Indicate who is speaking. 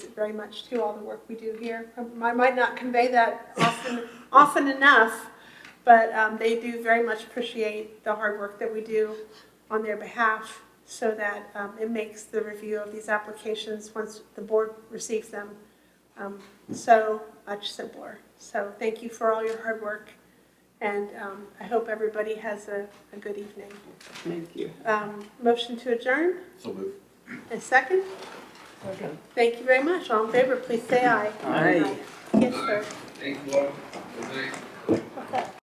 Speaker 1: very much to all the work we do here. I might not convey that often, often enough, but um, they do very much appreciate the hard work that we do on their behalf so that um, it makes the review of these applications, once the board receives them, um, so much simpler. So thank you for all your hard work, and um, I hope everybody has a a good evening.
Speaker 2: Thank you.
Speaker 1: Um, Motion to adjourn,
Speaker 3: So move.
Speaker 1: and second? Thank you very much. All in favor, please say aye.
Speaker 2: Aye.
Speaker 1: Yes, sir.
Speaker 3: Thank you all. Good night.
Speaker 1: Okay.